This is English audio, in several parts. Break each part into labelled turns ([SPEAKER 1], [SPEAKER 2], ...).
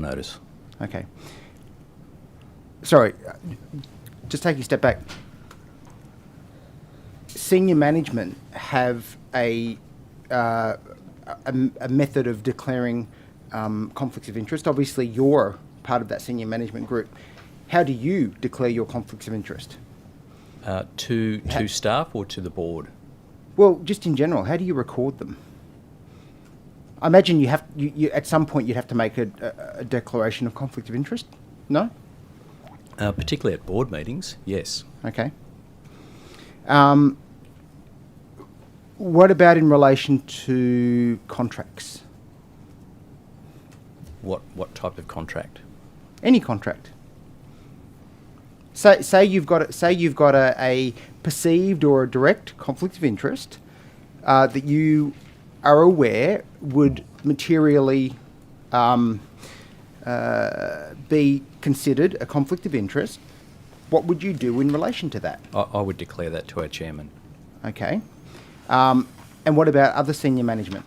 [SPEAKER 1] notice.
[SPEAKER 2] Okay. Sorry, uh, just taking a step back. Senior management have a, uh, a, a method of declaring um, conflicts of interest. Obviously, you're part of that senior management group. How do you declare your conflicts of interest?
[SPEAKER 1] Uh, to to staff or to the board?
[SPEAKER 2] Well, just in general, how do you record them? I imagine you have you, you at some point you'd have to make a, a, a declaration of conflict of interest. No,
[SPEAKER 1] Uh, particularly at board meetings, yes.
[SPEAKER 2] okay. Um, what about in relation to contracts?
[SPEAKER 1] What what type of contract?
[SPEAKER 2] Any contract. Say, say you've got a, say you've got a, a perceived or a direct conflict of interest uh, that you are aware would materially um, uh, be considered a conflict of interest. What would you do in relation to that?
[SPEAKER 1] I, I would declare that to our chairman.
[SPEAKER 2] Okay, um, and what about other senior management?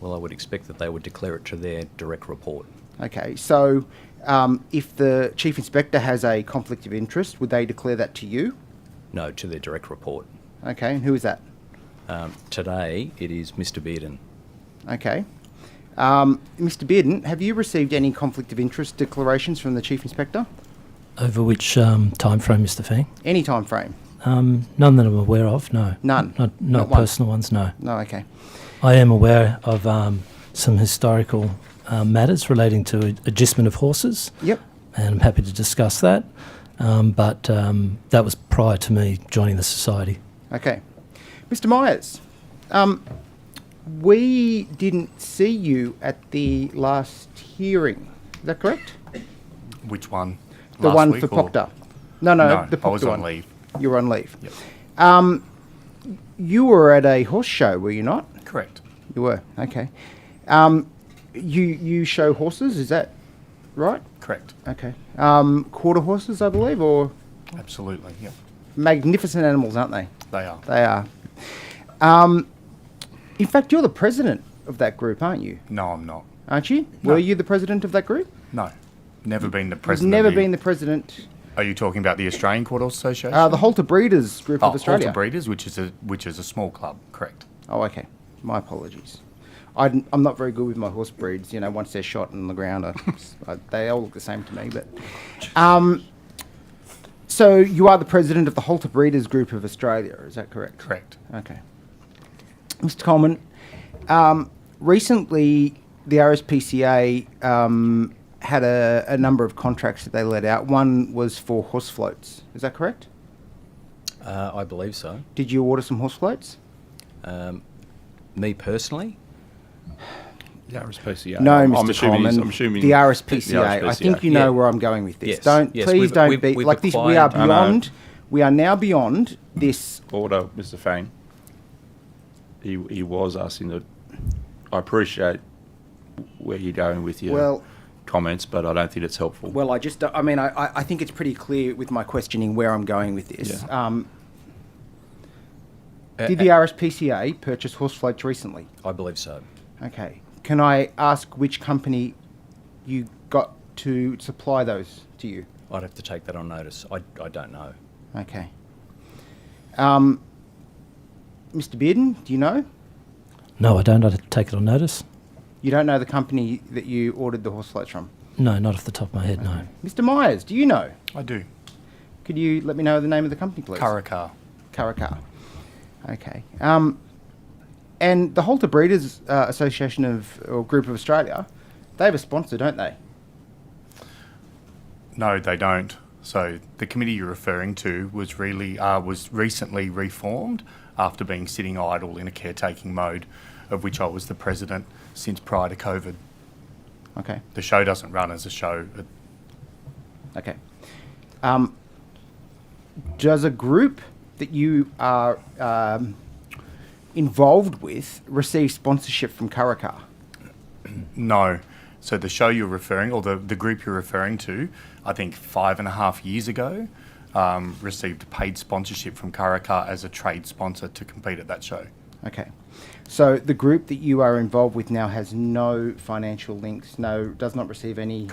[SPEAKER 1] Well, I would expect that they would declare it to their direct report.
[SPEAKER 2] Okay, so um, if the chief inspector has a conflict of interest, would they declare that to you?
[SPEAKER 1] No, to their direct report.
[SPEAKER 2] Okay, and who is that?
[SPEAKER 1] Um, today it is Mr. Bearden.
[SPEAKER 2] Okay. Um, Mr. Bearden, have you received any conflict of interest declarations from the chief inspector?
[SPEAKER 3] Over which um, time frame, Mr. Fang?
[SPEAKER 2] Any time frame?
[SPEAKER 3] Um, none that I'm aware of. No.
[SPEAKER 2] None?
[SPEAKER 3] Not,
[SPEAKER 2] Not
[SPEAKER 3] not,
[SPEAKER 2] one?
[SPEAKER 3] personal ones. No.
[SPEAKER 2] No, okay.
[SPEAKER 3] I am aware of um, some historical uh, matters relating to ad- adjustment of horses,
[SPEAKER 2] Yep.
[SPEAKER 3] and I'm happy to discuss that. Um, but um, that was prior to me joining the society.
[SPEAKER 2] Okay. Mr. Myers, um, we didn't see you at the last hearing. Is that correct?
[SPEAKER 4] Which one?
[SPEAKER 2] The
[SPEAKER 4] Last
[SPEAKER 2] one
[SPEAKER 4] week
[SPEAKER 2] for
[SPEAKER 4] or-
[SPEAKER 2] Proctor. No, no,
[SPEAKER 4] No,
[SPEAKER 2] the
[SPEAKER 4] I
[SPEAKER 2] Proctor
[SPEAKER 4] was
[SPEAKER 2] one.
[SPEAKER 4] on leave.
[SPEAKER 2] You were on leave.
[SPEAKER 4] Yep.
[SPEAKER 2] You were at a horse show, were you not?
[SPEAKER 4] Correct.
[SPEAKER 2] You were. Okay. Um, you you show horses, is that right?
[SPEAKER 4] Correct.
[SPEAKER 2] Okay. Um, quarter horses, I believe, or
[SPEAKER 4] Absolutely. Yep.
[SPEAKER 2] magnificent animals, aren't they?
[SPEAKER 4] They are.
[SPEAKER 2] They are. Um, in fact, you're the president of that group, aren't you?
[SPEAKER 4] No, I'm not.
[SPEAKER 2] Aren't you?
[SPEAKER 4] No.
[SPEAKER 2] Were you the president of that group?
[SPEAKER 4] No. Never been the
[SPEAKER 2] You've
[SPEAKER 4] president.
[SPEAKER 2] never
[SPEAKER 4] of the,
[SPEAKER 2] been the president.
[SPEAKER 4] Are you talking about the Australian Quarter Association?
[SPEAKER 2] Uh, the Halter Breeders Group
[SPEAKER 4] oh,
[SPEAKER 2] of Australia.
[SPEAKER 4] Halter Breeders, which is a which is a small club. Correct.
[SPEAKER 2] Oh, okay. My apologies. I didn't- I'm not very good with my horse breeds. You know, once they're shot on the ground, I, I, they all look the same to me. But, um, so you are the president of the Halter Breeders Group of Australia. Is that correct?
[SPEAKER 4] Correct.
[SPEAKER 2] Okay. Mr. Coleman, um, recently the RSPCA um, had a, a number of contracts that they let out. One was for horse floats. Is that correct?
[SPEAKER 1] Uh, I believe so.
[SPEAKER 2] Did you order some horse floats?
[SPEAKER 1] Um, me personally,
[SPEAKER 5] The RSPCA.
[SPEAKER 2] No,
[SPEAKER 5] I'm
[SPEAKER 2] Mr.
[SPEAKER 5] assuming he's-
[SPEAKER 2] Coleman.
[SPEAKER 5] I'm assuming
[SPEAKER 2] the RSPCA. I think you know
[SPEAKER 1] Yeah.
[SPEAKER 2] where I'm going with this.
[SPEAKER 1] Yes,
[SPEAKER 2] Don't
[SPEAKER 1] yes,
[SPEAKER 2] please
[SPEAKER 1] we've-
[SPEAKER 2] don't
[SPEAKER 1] we've-
[SPEAKER 2] be
[SPEAKER 1] we've
[SPEAKER 2] like this. We are
[SPEAKER 1] acquired- I
[SPEAKER 5] know.
[SPEAKER 2] beyond. We are now beyond this.
[SPEAKER 5] Order, Mr. Fang. He, he was asking that. I appreciate where you're going with your
[SPEAKER 2] Well-
[SPEAKER 5] comments, but I don't think it's helpful.
[SPEAKER 2] Well, I just. I mean, I, I- I think it's pretty clear with my questioning where I'm going with this.
[SPEAKER 5] Yeah.
[SPEAKER 2] Um,
[SPEAKER 1] Uh,
[SPEAKER 2] did the RSPCA purchase horse floats recently?
[SPEAKER 1] I believe so.
[SPEAKER 2] Okay. Can I ask which company you got to supply those to you?
[SPEAKER 1] I'd have to take that on notice. I, I don't know.
[SPEAKER 2] Okay. Um, Mr. Bearden, do you know?
[SPEAKER 3] No, I don't. I take it on notice.
[SPEAKER 2] You don't know the company that you ordered the horse floats from?
[SPEAKER 3] No, not off the top of my head. No.
[SPEAKER 2] Mr. Myers, do you know?
[SPEAKER 4] I do.
[SPEAKER 2] Could you let me know the name of the company, please?
[SPEAKER 4] Karakar.
[SPEAKER 2] Karakar. Okay. Um, and the Halter Breeders uh, Association of or Group of Australia, they have a sponsor, don't they?
[SPEAKER 4] No, they don't. So the committee you're referring to was really uh, was recently reformed after being sitting idle in a caretaking mode, of which I was the president since prior to COVID.
[SPEAKER 2] Okay.
[SPEAKER 4] The show doesn't run as a show. It
[SPEAKER 2] Okay. Um, does a group that you are um, involved with receive sponsorship from Karakar?
[SPEAKER 4] No. So the show you're referring, or the, the group you're referring to, I think five and a half years ago, um, received paid sponsorship from Karakar as a trade sponsor to compete at that show.
[SPEAKER 2] Okay. So the group that you are involved with now has no financial links, no, does not receive any